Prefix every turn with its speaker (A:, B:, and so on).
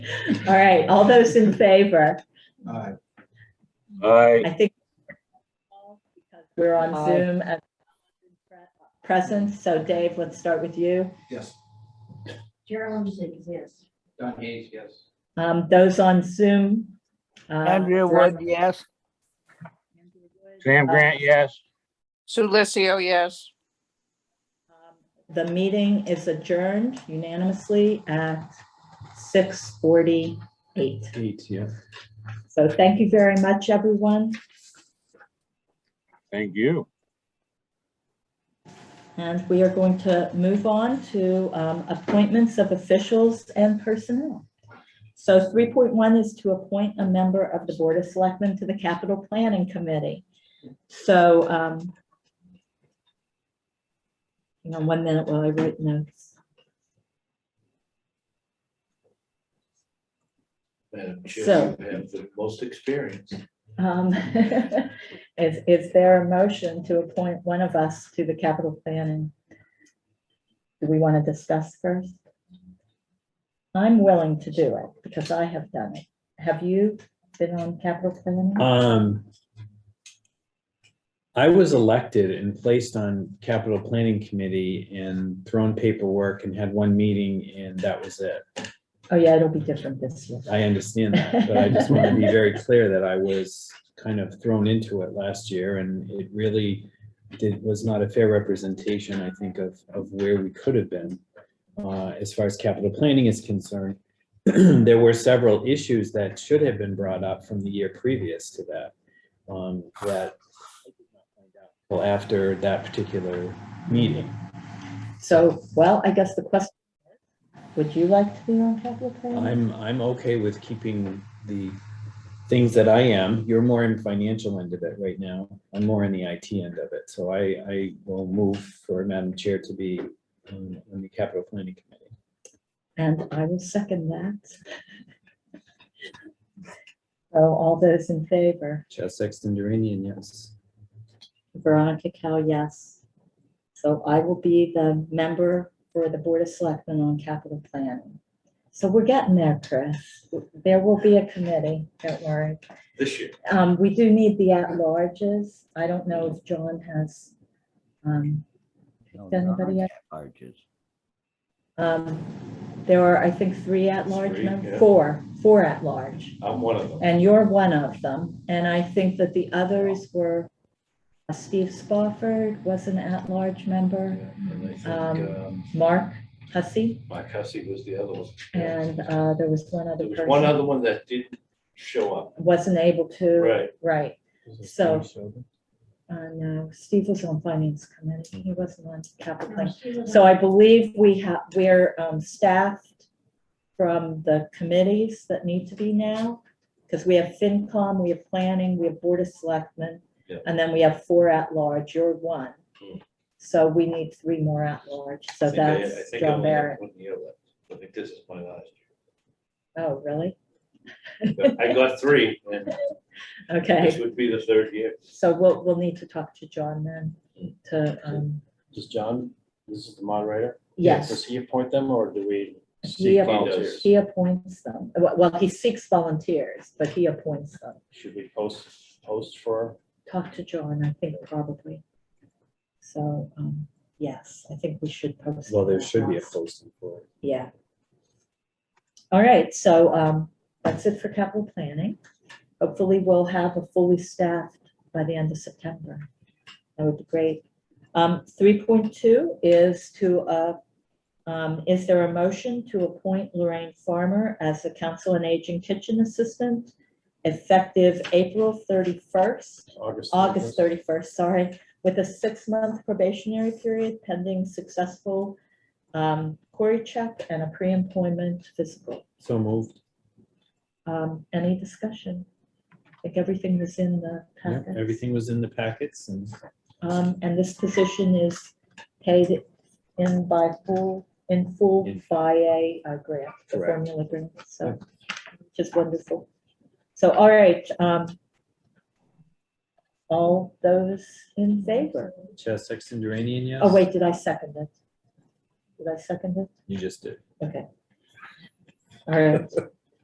A: All right, all those in favor?
B: Aye.
C: Aye.
A: I think because we're on
D: Aye.
A: Zoom and present, so Dave, let's start with you.
B: Yes.
E: Gerald exists.
B: Don Hayes, yes.
A: Um, Those on Zoom. uh,
F: Andrea Wood, yes.
A: Andrea Wood,
C: Sam Grant, yes.
D: Sue Lizio, yes.
A: um, The meeting is adjourned unanimously at 6:48.
G: Eight, yeah.
A: So thank you very much, everyone,
C: Thank you.
A: and we are going to move on to um, appointments of officials and personnel. So 3.1 is to appoint a member of the Board of Selectmen to the Capital Planning Committee. So um, hang on one minute while I write notes.
H: Madam
A: So-
H: Chair, you have the most experience.
A: Um, Is, is there a motion to appoint one of us to the capital planning? Do we want to discuss first? I'm willing to do it because I have done it. Have you been on capital planning?
G: Um, I was elected and placed on capital planning committee and thrown paperwork and had one meeting and that was it.
A: Oh, yeah, it'll be different this year.
G: I understand that, but I just want to be very clear that I was kind of thrown into it last year and it really did, was not a fair representation, I think, of, of where we could have been uh, as far as capital planning is concerned. There were several issues that should have been brought up from the year previous to that, um, that I did not find out until after that particular meeting.
A: So, well, I guess the question, is, would you like to be on capital planning?
G: I'm, I'm okay with keeping the things that I am. You're more in financial end of it right now. I'm more in the IT end of it. So I, I will move for Madam Chair to be on on the Capital Planning Committee.
A: And I will second that. So all those in favor?
G: Chad Sexton Duranian, yes.
A: Veronica Cal, yes. So I will be the member for the Board of Selectmen on capital planning. So we're getting there, Chris. There will be a committee, don't worry.
H: This year,
A: Um, we do need the at-larges. I don't know if John has, um,
I: No,
A: Does anybody
I: not
A: else?
I: charges.
A: um, there are, I think, three at-large,
H: Three,
A: mem-
H: yeah.
A: four, four at-large.
H: I'm one of them.
A: And you're one of them. And I think that the others were uh, Steve Spofford was an at-large member.
H: And I think
A: Um,
H: um,
A: Mark Hussey,
H: Mike Hussey was the other one.
A: and uh, there was one other
H: There was one
A: person,
H: other one that didn't show up.
A: wasn't able to,
H: Right.
A: right.
G: it
A: So, uh, no, Steve was on Finance Committee,
H: Mm-hmm.
A: he wasn't on Capital Plan. So I believe we have, we're um, staffed from the committees that need to be now, because we have FinCom, we have Planning, we have Board of Selectmen,
H: Yeah.
A: and then we have four at-large, you're one.
H: Hmm.
A: So we need three more at-large,
H: I
A: so
H: think I- I
A: that's
H: think I
A: John
H: only have
A: Barrett.
H: one year left. I think this is my last
A: Oh, really?
H: year. But I got three, and
A: Okay.
H: this would be the third year.
A: So we'll, we'll need to talk to John then to, um,
J: Does John, this is the moderator? Does
A: yes,
J: he appoint them or do we
A: He
J: seek
A: appoints.
J: volunteers?
A: he appoints them. Well, well, he seeks volunteers, but he appoints them.
J: Should we post, post for?
A: Talk to John, I think probably. So, um, yes, I think we should post.
G: Well, there should be a
A: that.
G: posting for it.
A: Yeah. All right, so, um, that's it for capital planning. Hopefully, we'll have a fully staffed by the end of September. That would be great. Um, three point two is to, uh, um, is there a motion to appoint Lorraine Farmer as the Council on Aging Kitchen Assistant effective April thirty-first? August thirty-first, sorry, with a six-month probationary period pending successful um, query check and a pre-employment physical.
G: So moved.
A: Um, Any discussion? I think everything was in the
G: Yeah,
A: packet.
G: Everything was in the packets and
A: Um, And this position is paid in by full, in full
G: In-
A: by a uh, grant, the
G: Correct.
A: formula grant, so, which is wonderful. So, all right. um, All those in favor?
G: Chad Sexton Duranian, yes.
A: Oh, wait, did I second it? Did I second it?
G: You just did.
A: Okay. All right.